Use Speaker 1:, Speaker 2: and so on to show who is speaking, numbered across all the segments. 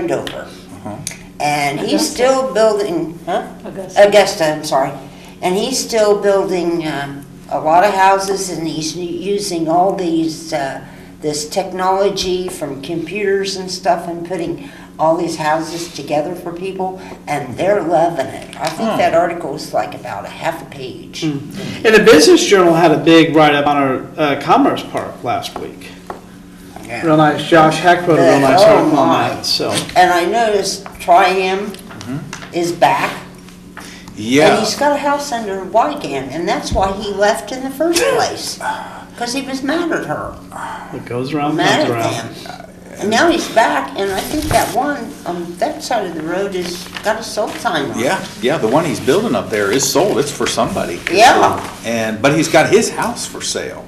Speaker 1: Andover. And he's still building, huh?
Speaker 2: Augusta.
Speaker 1: Augusta, I'm sorry. And he's still building um, a lot of houses and he's using all these, uh, this technology from computers and stuff and putting all these houses together for people and they're loving it. I think that article is like about a half a page.
Speaker 3: And the Business Journal had a big write-up on our uh, Commerce Park last week.
Speaker 1: Yeah.
Speaker 3: Real nice, Josh Heck wrote a real nice
Speaker 1: Oh,
Speaker 3: article on
Speaker 1: my.
Speaker 3: that, so.
Speaker 1: And I noticed Triam is back. And
Speaker 4: Yeah,
Speaker 1: he's got a house under Wygan, and that's why he left in the first place. Because he was mad at her,
Speaker 3: It goes around,
Speaker 1: mad
Speaker 3: comes
Speaker 1: at
Speaker 3: around.
Speaker 1: them. And now he's back, and I think that one on that side of the road has got a sold sign on it.
Speaker 4: yeah, yeah, the one he's building up there is sold, it's for somebody.
Speaker 1: Yeah.
Speaker 4: And, but he's got his house for sale.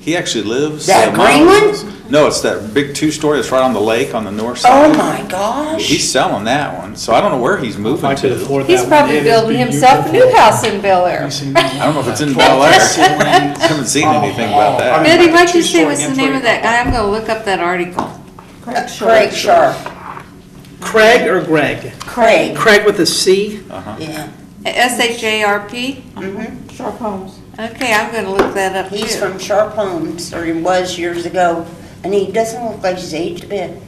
Speaker 4: He actually lives.
Speaker 1: That
Speaker 4: uh,
Speaker 1: green one?
Speaker 4: miles- No, it's that big two-story that's right on the lake on the north
Speaker 1: Oh
Speaker 4: side.
Speaker 1: my gosh.
Speaker 4: He's selling that one, so I don't know where he's
Speaker 3: I
Speaker 4: moving
Speaker 3: could
Speaker 4: to.
Speaker 3: afford that
Speaker 2: He's
Speaker 3: one.
Speaker 2: probably
Speaker 3: It is
Speaker 2: building himself a new
Speaker 3: beautiful.
Speaker 2: house in Bel Air.
Speaker 3: You seen that?
Speaker 4: I don't know if it's in Bel Air. Haven't seen anything
Speaker 3: Oh,
Speaker 4: about
Speaker 3: I
Speaker 4: that.
Speaker 3: mean-
Speaker 2: Betty,
Speaker 3: like
Speaker 2: what
Speaker 3: a
Speaker 2: you say was
Speaker 3: two-story
Speaker 2: the name of
Speaker 3: entry.
Speaker 2: that guy? I'm gonna look up that article.
Speaker 1: Uh, Craig Sharp,
Speaker 3: Craig or Greg?
Speaker 1: Craig,
Speaker 3: Craig with a C?
Speaker 1: yeah.
Speaker 2: S H A R P?
Speaker 1: Mhm.
Speaker 5: Sharp homes.
Speaker 2: Okay, I'm gonna look that up
Speaker 1: He's
Speaker 2: too.
Speaker 1: from Sharp Homes, or he was years ago, and he doesn't look like he's aged a bit.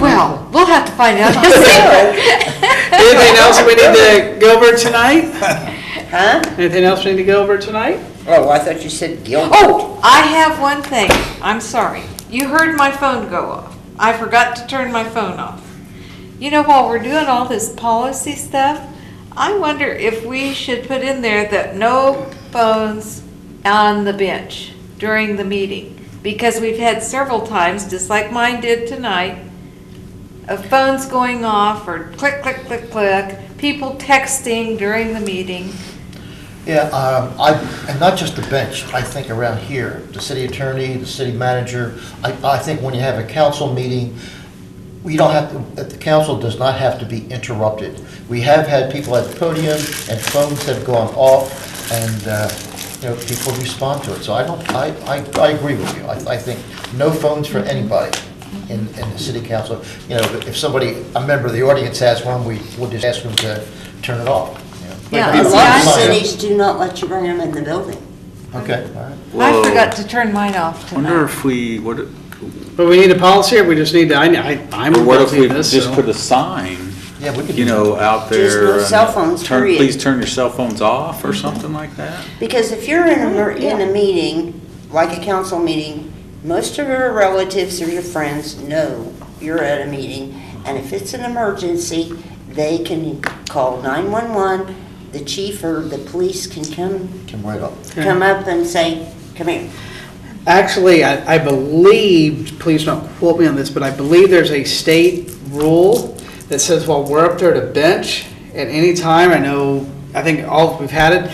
Speaker 2: Well, we'll have to find out.
Speaker 3: Anything else we need to go over tonight?
Speaker 1: Huh?
Speaker 3: Anything else we need to go over tonight?
Speaker 1: Oh, I thought you said Gilbert.
Speaker 2: Oh, I have one thing. I'm sorry. You heard my phone go off. I forgot to turn my phone off. You know, while we're doing all this policy stuff, I wonder if we should put in there that no phones on the bench during the meeting. Because we've had several times, just like mine did tonight, of phones going off or click, click, click, click, people texting during the meeting.
Speaker 6: Yeah, um, I, and not just the bench, I think around here, the city attorney, the city manager, I, I think when you have a council meeting, we don't have, to- that the council does not have to be interrupted. We have had people at the podium and phones have gone off and, uh, you know, people respond to it. So I don't, I, I, I agree with you. I, I think no phones for anybody in, in the city council. You know, if somebody, a member of the audience has one, we, we'll just ask them to turn it off. you know.
Speaker 2: Yeah,
Speaker 6: Like,
Speaker 1: A lot of
Speaker 2: Yeah.
Speaker 1: cities do not let you bring them in the building.
Speaker 6: Okay, all right.
Speaker 2: I
Speaker 4: Whoa.
Speaker 2: forgot to turn mine off tonight.
Speaker 4: Wonder if we, what,
Speaker 3: But we need a policy or we just need to, I, I- I'm
Speaker 4: or what if
Speaker 3: guilty
Speaker 4: we
Speaker 3: of this,
Speaker 4: just
Speaker 3: so.
Speaker 4: put a sign,
Speaker 6: Yeah, we could.
Speaker 4: you
Speaker 6: do
Speaker 4: know, out there?
Speaker 1: Just no
Speaker 4: and
Speaker 1: cell phones,
Speaker 4: turn-
Speaker 1: period.
Speaker 4: Please turn your cell phones off or something like that?
Speaker 1: Because if you're in a, mer- in a meeting, like a council meeting, most of your relatives or your friends know you're at a meeting, and if it's an emergency, they can call 911, the chief or the police can come,
Speaker 6: Come right up.
Speaker 1: come up and say, come here.
Speaker 3: Actually, I, I believe, please don't quote me on this, but I believe there's a state rule that says while we're up there to bench at any time, I know, I think all, we've had it.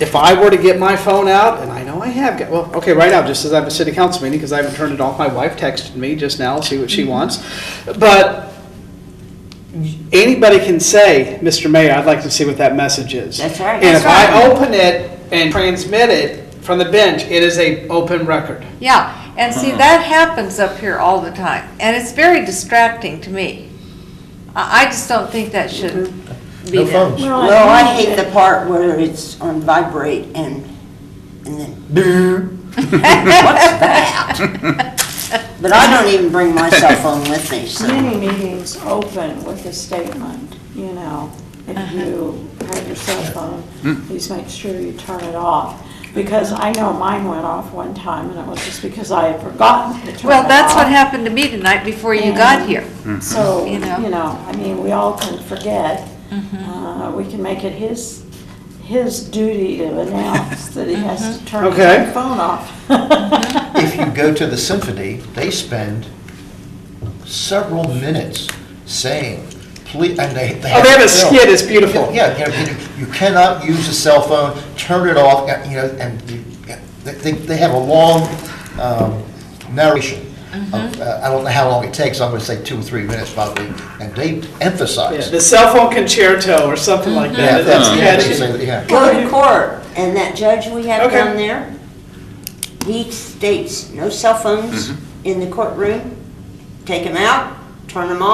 Speaker 3: If I were to get my phone out, and I know I have, got- well, okay, right now, just as I have a city council meeting, because I haven't turned it off, my wife texted me just now, see what she wants. But anybody can say, Mr. Mayor, I'd like to see what that message is.
Speaker 1: That's right.
Speaker 3: And if
Speaker 2: That's right.
Speaker 3: I open it and transmit it from the bench, it is a open record.
Speaker 2: Yeah, and see, that happens up here all the time, and it's very distracting to me. I, I just don't think that should be
Speaker 6: No
Speaker 2: there.
Speaker 5: Oh,
Speaker 6: phones.
Speaker 1: Well, I hate the part where it's on vibrate and, and then, brrr. what's that? But I don't even bring my cell phone with me, so.
Speaker 5: Many meetings open with a statement, you know,
Speaker 2: Uh-huh.
Speaker 5: if you have your cell
Speaker 2: Hmm.
Speaker 5: phone, please make sure you turn it off. Because I know mine went off one time and it was just because I had forgotten to turn it off.
Speaker 2: Well, that's what happened to me tonight before you got here. Hmm.
Speaker 5: So,
Speaker 2: You
Speaker 5: you
Speaker 2: know. Mm-hmm.
Speaker 5: know, I mean, we all can forget. Uh, We can make it his, his duty to announce that he has
Speaker 2: Mm-hmm.
Speaker 5: to turn
Speaker 3: Okay.
Speaker 5: his phone off.
Speaker 6: If you go to the symphony, they spend several minutes saying, please, and they.
Speaker 3: Oh, they have a
Speaker 6: film.
Speaker 3: skit, it's beautiful.
Speaker 6: Yeah, you know, you you cannot use a cell phone, turn it off, uh, you know, and you- they, they- they have a long um, narration.
Speaker 3: Mm-hmm.
Speaker 6: of, uh, I don't know how long it takes, I'm gonna say two or three minutes probably, and they emphasize.
Speaker 3: The cell phone concerto or something like
Speaker 6: Yeah,
Speaker 3: that.
Speaker 6: that's- Mm-hmm. yeah, they
Speaker 3: That's catchy.
Speaker 6: say- yeah.
Speaker 1: go to court, and that judge we have
Speaker 3: Okay.
Speaker 1: down there, he states no cell phones in the courtroom, take them out, turn them on.